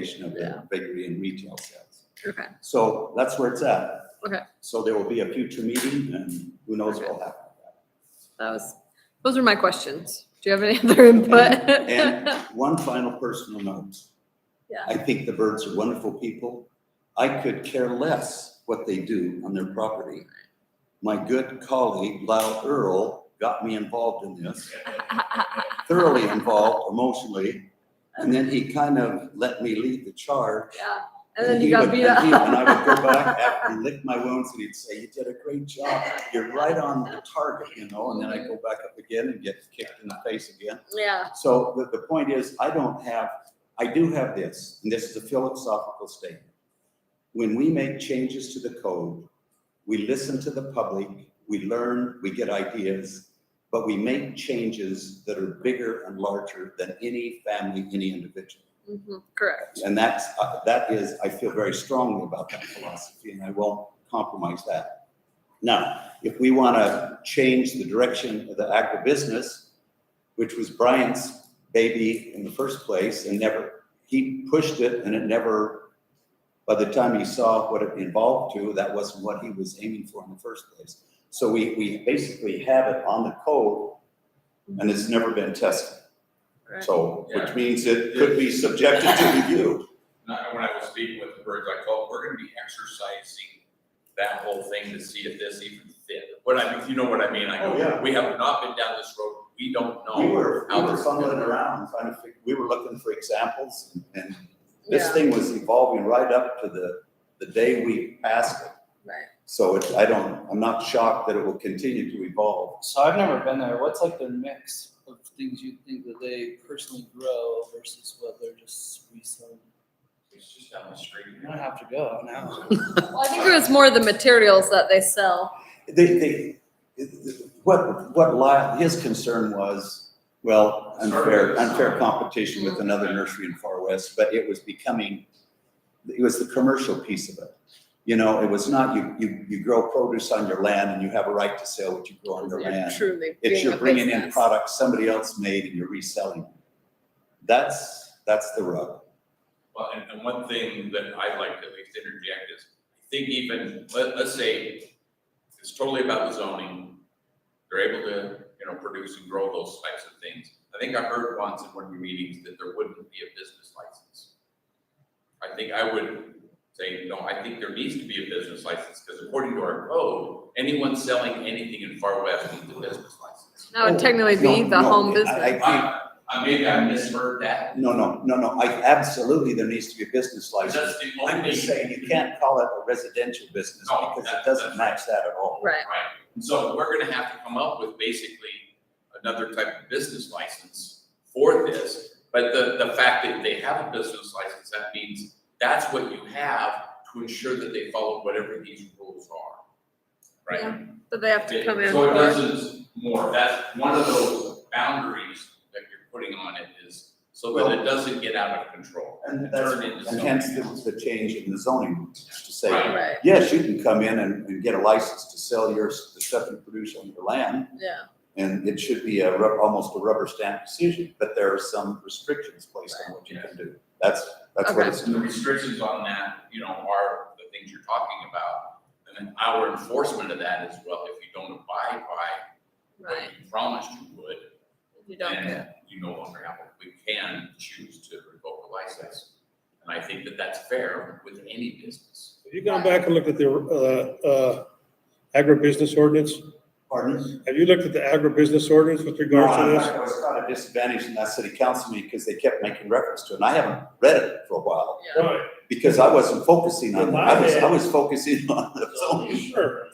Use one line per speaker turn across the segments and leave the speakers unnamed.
combination of
Yeah.
the bakery and retail sales.
Okay,
So that's where it's at.
Okay.
So there will be a future meeting and who knows what will happen.
that was, those were my questions. Do you have any other input?
And one final personal note.
Yeah.
I think the birds are wonderful people. I could care less what they do on their property. My good colleague Lyle Earl got me involved in this, thoroughly involved emotionally. And then he kind of let me lead the charge
Yeah, and then you
he
got
would-
beat
and he- And I would go
up.
back after and lick my wounds and he'd say, you did a great job. You're right on the target, you know, and then I go back up again and get kicked in the face again.
Yeah,
So the, the point is, I don't have, I do have this, and this is a philosophical statement. When we make changes to the code, we listen to the public, we learn, we get ideas, but we make changes that are bigger and larger than any family, any individual.
mhm, correct.
And that's, uh, that is, I feel very strongly about that philosophy and I won't compromise that. Now, if we want to change the direction of the agribusiness, which was Brian's baby in the first place and never, he pushed it and it never, by the time he saw what it evolved to, that wasn't what he was aiming for in the first place. So we, we basically have it on the code and it's never been tested.
Right.
So, which
Yeah.
means it could be subjected to review.
Not, when I was speaking with the birds, I told, we're gonna be exercising that whole thing to see if this even fit. What I, if you know what I mean, I
Oh, yeah.
go, we have not been down this road, we don't know.
We were, we
how
were
this is
fumbling
gonna-
around, trying to figure, we were looking for examples, and this
Yeah,
thing was evolving right up to the, the day we passed it.
right.
So it, I don't, I'm not shocked that it will continue to evolve.
So I've never been there. What's like their mix of things you think that they personally grow versus what they're just reselling?
It's just down the street.
I'm gonna have to go now.
Well, I think it was more the materials that they sell.
They, they, what, what Lyle, his concern was, well, unfair, unfair competition with another nursery in Far West, but it was becoming, it was the commercial piece of it. You know, it was not, you, you, you grow produce on your land and you have a right to sell what you grow on your land.
Truly.
It's
being
you're
a
bringing in
business.
products somebody else made and you're reselling. That's, that's the rub.
Well, and, and one thing that I'd like to at least interject is, I think even, let, let's say, it's totally about the zoning. They're able to, you know, produce and grow those types of things. I think I heard once in one of your meetings that there wouldn't be a business license. I think I would say, no, I think there needs to be a business license, because according to our code, anyone selling anything in Far West needs a business license.
That would technically
No,
be
no,
the home
I-
business.
I
I, I maybe I misheard that.
think, no, no, no, no, I, absolutely, there needs to be a business
That's
license.
the
I'm
only.
just saying, you can't call it a residential business
No,
because it
that-
doesn't match
that's-
that at all.
Right,
Right, and so we're gonna have to come up with basically another type of business license for this. But the, the fact that they have a business license, that means that's what you have to ensure that they follow whatever these rules are.
Yeah,
Right?
but they have to come in.
So it
for-
doesn't more, that's one of those boundaries that you're putting on it is so that it doesn't get out of control.
And that's,
Turn into
and
something
hence
else.
the, the change in the zoning to say,
Right.
Right,
yes, you can come in and, and get a license to sell your, s- the stuff you produce on your land.
yeah,
And it should be a, rub- almost a rubber stamp decision, but there are some restrictions placed on what you can do. That's, that's what
Okay.
it's.
And the restrictions on that, you know, are the things you're talking about. And then our enforcement of that is, well, if you don't abide by what
right.
you promised you would,
You don't get,
then you no longer have, one. we can choose to revoke a license. And I think that that's fair with any business.
Have you gone back and looked at the uh, uh, agribusiness ordinance?
Pardon?
Have you looked at the agribusiness ordinance with
No,
regards
I'm
to
not-
this?
I was kind of disadvantaged in that city council meeting because they kept making reference to it. And I haven't read it for a while
yeah,
Right,
because I wasn't focusing on,
In
that.
my
I was, I
head-
was focusing on the zoning.
sure.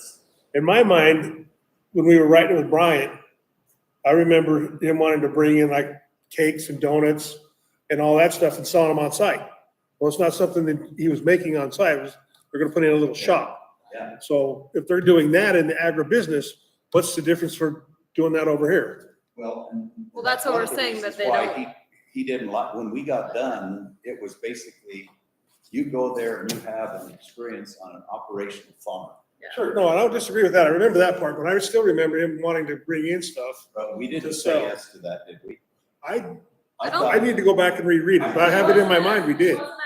In my mind, when we were writing with Brian, I remember him wanting to bring in like cakes and donuts and all that stuff and selling them on site. Well, it's not something that he was making on site, it was, they're gonna put in a little shop.
Yeah.
So if they're doing that in the agribusiness, what's the difference for doing that over here?
Well, and-
Well, that's what we're
one of the
saying, that
reasons
they
why
don't-
he- He didn't like, when we got done, it was basically, you go there and you have an experience on an operational farm.
Sure, no, I don't disagree with that. I remember that part, but I still remember him wanting to bring in stuff.
But we didn't
Just
say
so.
yes to that, did we?
I,
I don't-
thought-
I need to go back and reread it, but I have it in my mind, we did.
Wasn't